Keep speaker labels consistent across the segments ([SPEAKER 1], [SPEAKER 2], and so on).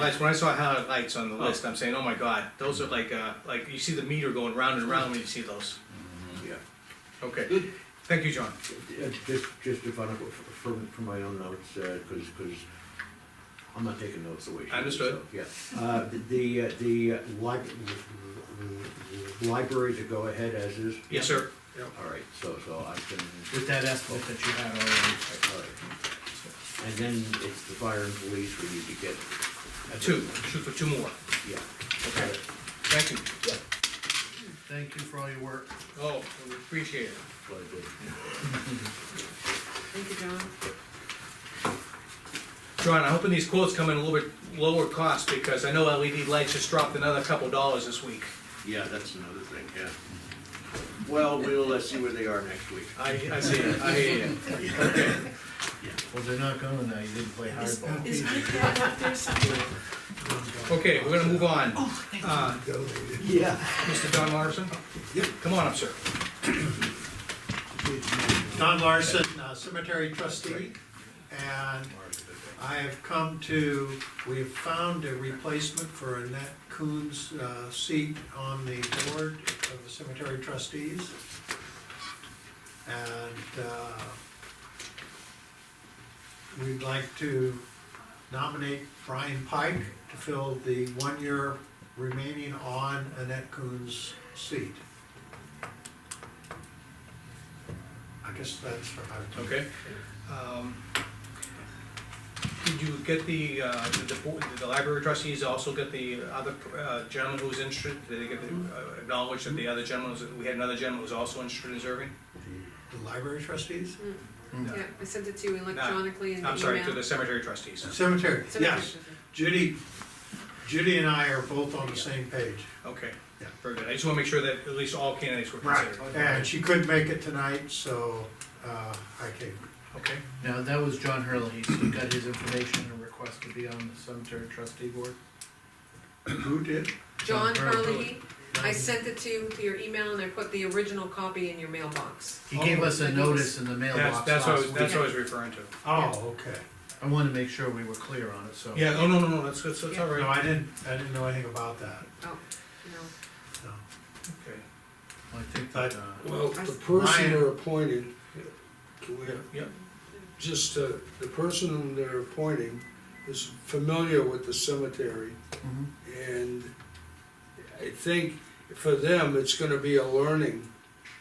[SPEAKER 1] Lights, when I saw Highlight Lights on the list, I'm saying, oh my god, those are like, uh, like, you see the meter going round and round when you see those.
[SPEAKER 2] Yeah.
[SPEAKER 1] Okay, thank you, John.
[SPEAKER 2] Uh, Just, just if I, don't- f- from, from my own notes, uh, cause, cause I'm not taking notes away. from you,
[SPEAKER 1] Understood.
[SPEAKER 2] so, Yeah, uh, the, uh, the uh, lib- library to go ahead as is?
[SPEAKER 1] Yes, sir.
[SPEAKER 2] All right, so, so I can,
[SPEAKER 3] With that estimate that you had already,
[SPEAKER 2] all right. And then it's the fire and police we need to get.
[SPEAKER 1] Two, shoot for two more.
[SPEAKER 2] Yeah.
[SPEAKER 1] Okay, thank you.
[SPEAKER 3] thank you for all your work.
[SPEAKER 1] Oh, we appreciate it.
[SPEAKER 2] Well, good.
[SPEAKER 4] Thank you, John.
[SPEAKER 1] John, I'm hoping these quotes come in a little bit lower cost, because I know LED lights just dropped another couple dollars this week.
[SPEAKER 2] Yeah, that's another thing, yeah. Well, we'll, uh see where they are next week.
[SPEAKER 1] I, I see, it. I hear you. Okay,
[SPEAKER 3] Well, they're not coming now, you didn't play
[SPEAKER 4] Is,
[SPEAKER 3] hardball.
[SPEAKER 4] is my cat up there somewhere?
[SPEAKER 1] okay, we're gonna move on.
[SPEAKER 4] Oh, thank you.
[SPEAKER 1] Uh,
[SPEAKER 2] Yeah.
[SPEAKER 1] Mr. Don Morrison?
[SPEAKER 2] Yep.
[SPEAKER 1] Come on up, sir.
[SPEAKER 5] Don Larson, uh, cemetery trustee, and I have come to, we have found a replacement for Annette Coon's uh, seat on the board of the cemetery trustees. And uh, we'd like to nominate Brian Pike to fill the one year remaining on Annette Coon's seat. I guess that's, I
[SPEAKER 1] Okay. Um, Did you get the, uh, did the, board- did the library trustees also get the other uh, gentleman who was interested? Did they get the, uh, acknowledge that the other gentleman, was- we had another gentleman who was also interested in serving?
[SPEAKER 5] the library trustees?
[SPEAKER 4] Yeah, I sent it to you electronically in the email.
[SPEAKER 1] I'm sorry, to the cemetery trustees.
[SPEAKER 5] Cemetery,
[SPEAKER 4] Cemetery
[SPEAKER 5] yes.
[SPEAKER 4] trustee.
[SPEAKER 5] Judy, Judy and I are both on the same page.
[SPEAKER 1] Okay,
[SPEAKER 5] Yeah.
[SPEAKER 1] very good. I just wanna make sure that at least all candidates were considered.
[SPEAKER 5] And she couldn't make it tonight, so uh, I came.
[SPEAKER 1] Okay,
[SPEAKER 3] Now, that was John Hurley, he got his information and request to be on the cemetery trustee board.
[SPEAKER 5] Who did?
[SPEAKER 3] John
[SPEAKER 4] John
[SPEAKER 3] Hurley.
[SPEAKER 4] Hurley, I sent it to you, to your email, and I put the original copy in your mailbox.
[SPEAKER 3] He gave us a notice in the
[SPEAKER 1] that's,
[SPEAKER 3] mailbox
[SPEAKER 1] that's what, I
[SPEAKER 3] last
[SPEAKER 1] was- that's what
[SPEAKER 3] week.
[SPEAKER 1] I was referring to.
[SPEAKER 5] Oh, okay.
[SPEAKER 3] I wanted to make sure we were clear on it, so.
[SPEAKER 1] Yeah, oh, no, no, no, that's, that's that's all
[SPEAKER 5] No,
[SPEAKER 1] right.
[SPEAKER 5] I didn't, I didn't know anything about that,
[SPEAKER 4] Oh, no.
[SPEAKER 5] no.
[SPEAKER 1] Okay.
[SPEAKER 3] I think that, uh,
[SPEAKER 6] Well, the person
[SPEAKER 5] Ryan.
[SPEAKER 6] they're appointing, can we,
[SPEAKER 1] Yep,
[SPEAKER 6] just, uh, the person they're appointing is familiar with the cemetery,
[SPEAKER 3] mhm.
[SPEAKER 6] and I think for them, it's gonna be a learning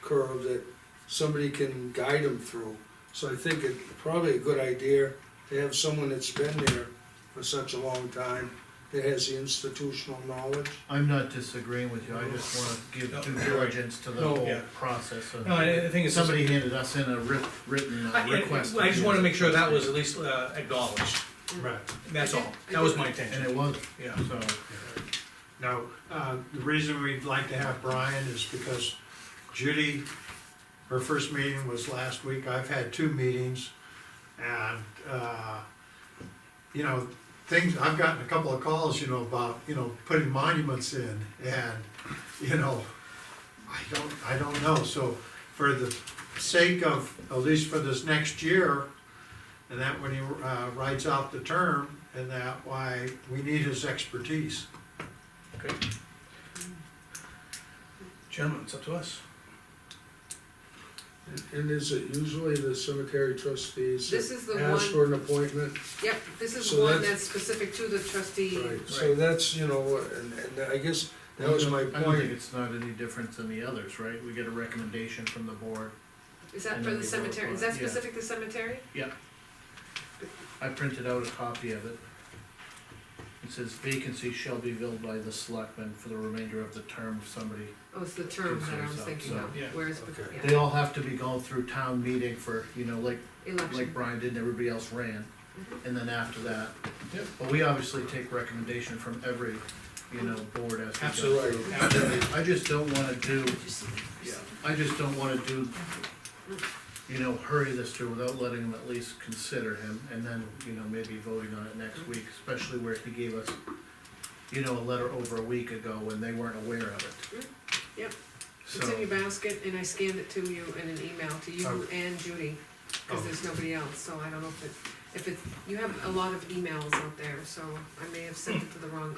[SPEAKER 6] curve that somebody can guide them through. So I think it's probably a good idea to have someone that's been there for such a long time, that has the institutional knowledge.
[SPEAKER 3] I'm not disagreeing with you, I just wanna give
[SPEAKER 1] No,
[SPEAKER 3] due
[SPEAKER 1] you're right.
[SPEAKER 3] diligence to the
[SPEAKER 6] No,
[SPEAKER 3] whole
[SPEAKER 1] yeah.
[SPEAKER 3] process of.
[SPEAKER 1] no, I I think it's.
[SPEAKER 3] Somebody handed us in a writ- written uh,
[SPEAKER 1] I
[SPEAKER 3] request.
[SPEAKER 1] I just wanna make sure that was at least uh, acknowledged.
[SPEAKER 5] Right.
[SPEAKER 1] That's all, that was my
[SPEAKER 3] And
[SPEAKER 1] intention,
[SPEAKER 3] it was,
[SPEAKER 1] yeah.
[SPEAKER 3] so.
[SPEAKER 5] Now, uh, the reason we'd like to have Brian is because Judy, her first meeting was last week, I've had two meetings, and, uh, you know, things, I've gotten a couple of calls, you know, about, you know, putting monuments in, and, you know, I don't, I don't know, so for the sake of, at least for this next year, and that when he, uh, writes out the term, and that why we need his expertise.
[SPEAKER 1] Okay. Gentlemen, it's up to us.
[SPEAKER 6] And is it usually the cemetery trustees
[SPEAKER 4] This
[SPEAKER 6] that
[SPEAKER 4] is the
[SPEAKER 6] ask
[SPEAKER 4] one,
[SPEAKER 6] for an appointment?
[SPEAKER 4] yep, this is
[SPEAKER 6] So
[SPEAKER 4] one
[SPEAKER 6] that's-
[SPEAKER 4] that's specific to the trustee.
[SPEAKER 6] Right, so that's, you know, and, and I guess that was my
[SPEAKER 3] I don't think
[SPEAKER 6] point.
[SPEAKER 3] it's not any different than the others, right? We get a recommendation from the board.
[SPEAKER 4] Is that
[SPEAKER 3] And
[SPEAKER 4] for
[SPEAKER 3] then we
[SPEAKER 4] the
[SPEAKER 3] vote
[SPEAKER 4] cemetery,
[SPEAKER 3] on
[SPEAKER 4] is
[SPEAKER 3] it,
[SPEAKER 4] that
[SPEAKER 3] yeah.
[SPEAKER 4] specific to cemetery?
[SPEAKER 3] I printed out a copy of it. It says vacancy shall be filled by the selectmen for the remainder of the term of somebody.
[SPEAKER 4] Oh, it's the term that I was
[SPEAKER 3] Concerns up,
[SPEAKER 4] thinking
[SPEAKER 3] so,
[SPEAKER 4] of,
[SPEAKER 1] yeah.
[SPEAKER 4] where's,
[SPEAKER 6] Okay.
[SPEAKER 3] They
[SPEAKER 4] yeah,
[SPEAKER 3] all have to be going through town meeting for, you know, like, like
[SPEAKER 4] election.
[SPEAKER 3] Brian did and everybody else ran.
[SPEAKER 4] Mhm.
[SPEAKER 3] And then after that.
[SPEAKER 1] Yep.
[SPEAKER 3] But we obviously take recommendation from every, you know, board as we go.
[SPEAKER 1] Absolutely, absolutely.
[SPEAKER 3] I just don't wanna do,
[SPEAKER 4] Did you see that?
[SPEAKER 3] yeah, I just don't wanna do, you know, hurry this through without letting them at least consider him, and then, you know, maybe voting on it next week, especially where he gave us, you know, a letter over a week ago when they weren't aware of it.
[SPEAKER 4] Mm-hmm. Yep.
[SPEAKER 3] So,
[SPEAKER 4] It's in your basket, and I scanned it to you in an email to you and Judy, cause there's nobody else, so I don't know if it, if it, you have a lot of emails out there, so I may have sent it to the wrong